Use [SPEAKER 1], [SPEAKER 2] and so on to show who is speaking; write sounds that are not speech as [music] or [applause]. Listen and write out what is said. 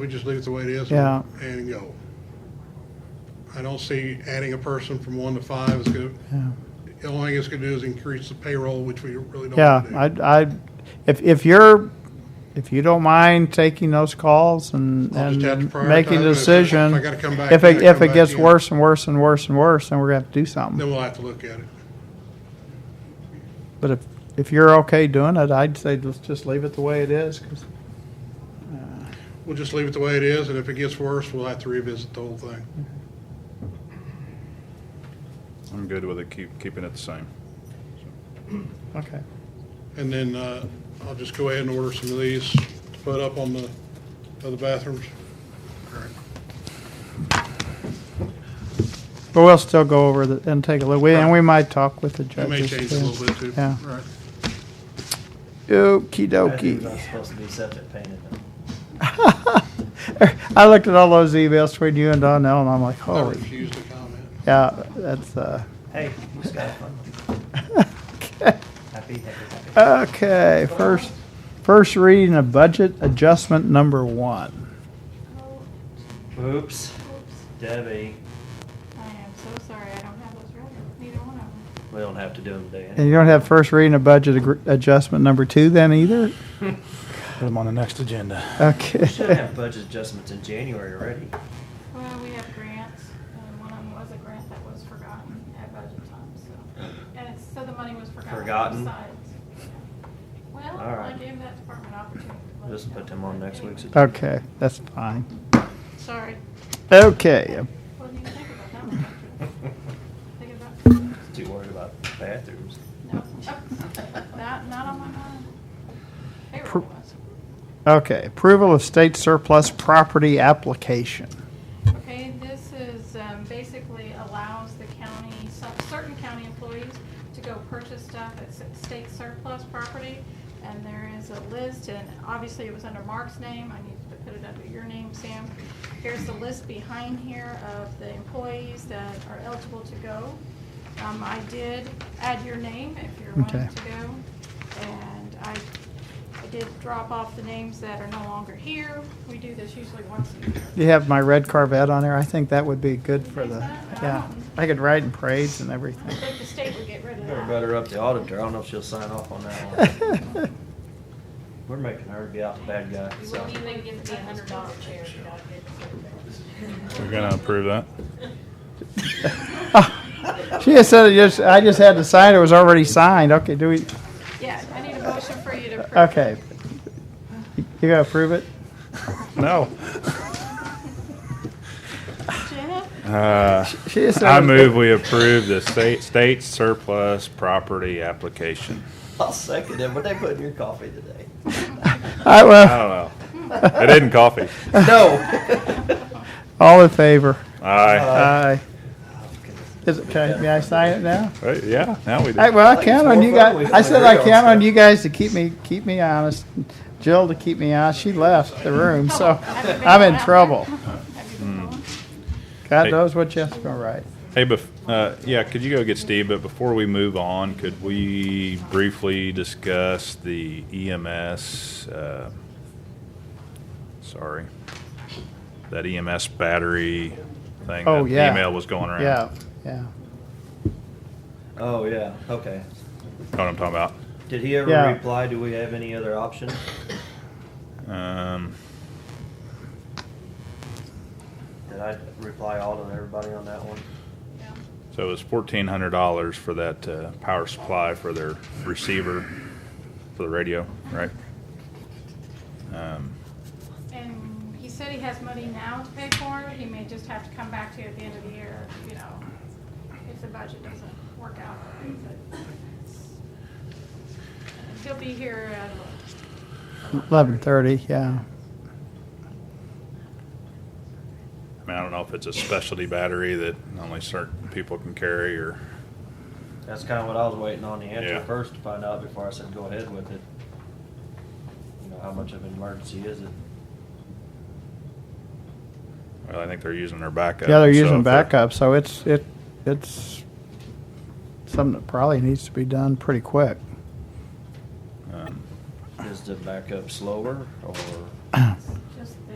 [SPEAKER 1] We just leave it the way it is.
[SPEAKER 2] Yeah.
[SPEAKER 1] And go. I don't see adding a person from one to five is gonna,
[SPEAKER 2] Yeah.
[SPEAKER 1] the only thing it's gonna do is increase the payroll, which we really don't
[SPEAKER 2] Yeah,
[SPEAKER 1] want to do.
[SPEAKER 2] I, I, if, if you're, if you don't mind taking those calls and,
[SPEAKER 1] I'll
[SPEAKER 2] and
[SPEAKER 1] just have to prioritize
[SPEAKER 2] making
[SPEAKER 1] it. If I-
[SPEAKER 2] a
[SPEAKER 1] if
[SPEAKER 2] decision.
[SPEAKER 1] I gotta come back,
[SPEAKER 2] If
[SPEAKER 1] I
[SPEAKER 2] it,
[SPEAKER 1] gotta
[SPEAKER 2] if
[SPEAKER 1] come
[SPEAKER 2] it
[SPEAKER 1] back
[SPEAKER 2] gets
[SPEAKER 1] in.
[SPEAKER 2] worse and worse and worse and worse, then we're gonna have to do something.
[SPEAKER 1] Then we'll have to look at it.
[SPEAKER 2] But if, if you're okay doing it, I'd say let's just leave it the way it is. 'cause-
[SPEAKER 1] We'll just leave it the way it is, and if it gets worse, we'll have to revisit the whole thing.
[SPEAKER 3] I'm good with it, keep, keeping it the same.
[SPEAKER 2] Okay.
[SPEAKER 1] And then, uh, I'll just go ahead and order some of these to put up on the, other bathrooms. All right.
[SPEAKER 2] But we'll still go over the, and take a look. We, and we might talk with the
[SPEAKER 1] That may
[SPEAKER 2] judges.
[SPEAKER 1] change a little bit too.
[SPEAKER 2] Yeah.
[SPEAKER 1] All right.
[SPEAKER 2] Okey
[SPEAKER 4] Bathrooms aren't supposed to be subject painted.
[SPEAKER 2] [laughs] I looked at all those emails between you and Donnell and I'm like,
[SPEAKER 1] I
[SPEAKER 2] holy,
[SPEAKER 1] refuse to comment.
[SPEAKER 2] yeah, that's, uh,
[SPEAKER 4] Hey, you just got a fun one. Happy, happy, happy.
[SPEAKER 2] Okay, first, first reading of budget adjustment number one.
[SPEAKER 5] Oh,
[SPEAKER 4] Oops, Debbie,
[SPEAKER 5] I am so sorry, I don't have those ready, neither one of them.
[SPEAKER 4] we don't have to do them today.
[SPEAKER 2] And you don't have first reading of budget agr- adjustment number two then either?
[SPEAKER 6] Put them on the next agenda.
[SPEAKER 4] We should
[SPEAKER 2] Okay.
[SPEAKER 4] have budget adjustments in January already. [laughs]
[SPEAKER 5] Well, we have grants, and one of them was a grant that was forgotten at budget time, so. And it's, so the money was forgotten.
[SPEAKER 4] Forgotten?
[SPEAKER 5] besides. Well,
[SPEAKER 4] All
[SPEAKER 5] I
[SPEAKER 4] right.
[SPEAKER 5] gave that department opportunity. to let
[SPEAKER 4] Just
[SPEAKER 5] it
[SPEAKER 4] put
[SPEAKER 5] go.
[SPEAKER 4] them on next week's. agenda.
[SPEAKER 2] Okay, that's fine.
[SPEAKER 5] Sorry,
[SPEAKER 2] Okay,
[SPEAKER 5] wasn't even thinking about that one. Thinking
[SPEAKER 4] [laughs]
[SPEAKER 5] about,
[SPEAKER 4] Too worried about bathrooms.
[SPEAKER 5] no, not, not on my mind. Payroll was.
[SPEAKER 2] okay, approval of state surplus property application.
[SPEAKER 5] Okay, this is, um, basically allows the county, some- certain county employees to go purchase stuff at s- state surplus property. And there is a list, and obviously it was under Mark's name, I need to put it under your name, Sam. Here's the list behind here of the employees that are eligible to go. Um, I did add your name if you're wanting
[SPEAKER 2] Okay.
[SPEAKER 5] to go. And I, I did drop off the names that are no longer here. We do this usually once a year.
[SPEAKER 2] You have my red Corvette on there. I think that would be good for the, yeah. I could ride in parades and
[SPEAKER 5] I
[SPEAKER 2] everything. [laughs]
[SPEAKER 5] think the state would get rid of
[SPEAKER 4] Better
[SPEAKER 5] that.
[SPEAKER 4] butter up the auditor, I don't know if she'll sign off on that
[SPEAKER 2] [laughs]
[SPEAKER 4] one. We're making her be out the bad guy,
[SPEAKER 7] You
[SPEAKER 4] so.
[SPEAKER 7] wouldn't even give the hundred dollar chair. you know, it's-
[SPEAKER 3] We're gonna approve that?
[SPEAKER 2] Ah, She just said, it just, I just had to sign, it was already signed. Okay, do we,
[SPEAKER 5] Yeah, I need a motion for you to approve.
[SPEAKER 2] Okay. You gotta approve it?
[SPEAKER 3] No.
[SPEAKER 5] Jenna,
[SPEAKER 3] Uh,
[SPEAKER 2] She just said
[SPEAKER 3] I
[SPEAKER 2] it was-
[SPEAKER 3] move we approve the state, state surplus property application.
[SPEAKER 4] I'll second it, what they put in your coffee today?
[SPEAKER 2] All right,
[SPEAKER 3] I
[SPEAKER 2] well,
[SPEAKER 3] don't know. It isn't coffee.
[SPEAKER 4] No.
[SPEAKER 2] all in favor?
[SPEAKER 3] Aye.
[SPEAKER 2] Aye.
[SPEAKER 4] Oh,
[SPEAKER 2] Is
[SPEAKER 4] goodness.
[SPEAKER 2] it, can, may I sign it now?
[SPEAKER 3] Right, Yeah, now we
[SPEAKER 2] All right,
[SPEAKER 3] do.
[SPEAKER 2] well, I
[SPEAKER 4] Like
[SPEAKER 2] count on
[SPEAKER 4] four
[SPEAKER 2] you
[SPEAKER 4] votes,
[SPEAKER 2] guys.
[SPEAKER 4] we
[SPEAKER 2] I said
[SPEAKER 4] agree
[SPEAKER 2] I
[SPEAKER 4] on
[SPEAKER 2] count on
[SPEAKER 4] stuff.
[SPEAKER 2] you guys to keep me, keep me honest. Jill to keep me honest. She left the room, so
[SPEAKER 5] Have you been
[SPEAKER 2] I'm
[SPEAKER 5] going
[SPEAKER 2] in
[SPEAKER 5] out
[SPEAKER 2] trouble.
[SPEAKER 5] there? Have you been going?
[SPEAKER 2] God
[SPEAKER 3] Hey.
[SPEAKER 2] knows what Jeff's gonna write.
[SPEAKER 3] Hey, bef, uh, yeah, could you go get Steve, but before we move on, could we briefly discuss the EMS, uh, sorry, that EMS battery thing?
[SPEAKER 2] Oh,
[SPEAKER 3] that
[SPEAKER 2] yeah.
[SPEAKER 3] Email was going around.
[SPEAKER 2] Yeah, yeah.
[SPEAKER 4] Oh, yeah, okay.
[SPEAKER 3] Know what I'm talking about?
[SPEAKER 4] Did he ever
[SPEAKER 2] Yeah.
[SPEAKER 4] reply, do we have any other option?
[SPEAKER 3] Um,
[SPEAKER 4] Did I reply all to everybody on that one?
[SPEAKER 5] Yeah.
[SPEAKER 3] so it was fourteen hundred dollars for that uh, power supply for their receiver for the radio, right? Um,
[SPEAKER 5] And he said he has money now to pay for it, he may just have to come back to you at the end of the year, you know, if the budget doesn't work out. but He'll be here uh, at,
[SPEAKER 2] Eleven thirty, yeah.
[SPEAKER 3] I mean, I don't know if it's a specialty battery that only certain people can carry or.
[SPEAKER 4] That's kind of what I was waiting on the answer
[SPEAKER 3] Yeah.
[SPEAKER 4] first to find out before I said go ahead with it. You know, how much of an emergency is it?
[SPEAKER 3] Well, I think they're using their backup.
[SPEAKER 2] Yeah, they're
[SPEAKER 3] so
[SPEAKER 2] using
[SPEAKER 3] if they're-
[SPEAKER 2] backup, so it's, it, it's something that probably needs to be done pretty quick.
[SPEAKER 3] um,
[SPEAKER 4] Is the backup slower or?
[SPEAKER 5] just the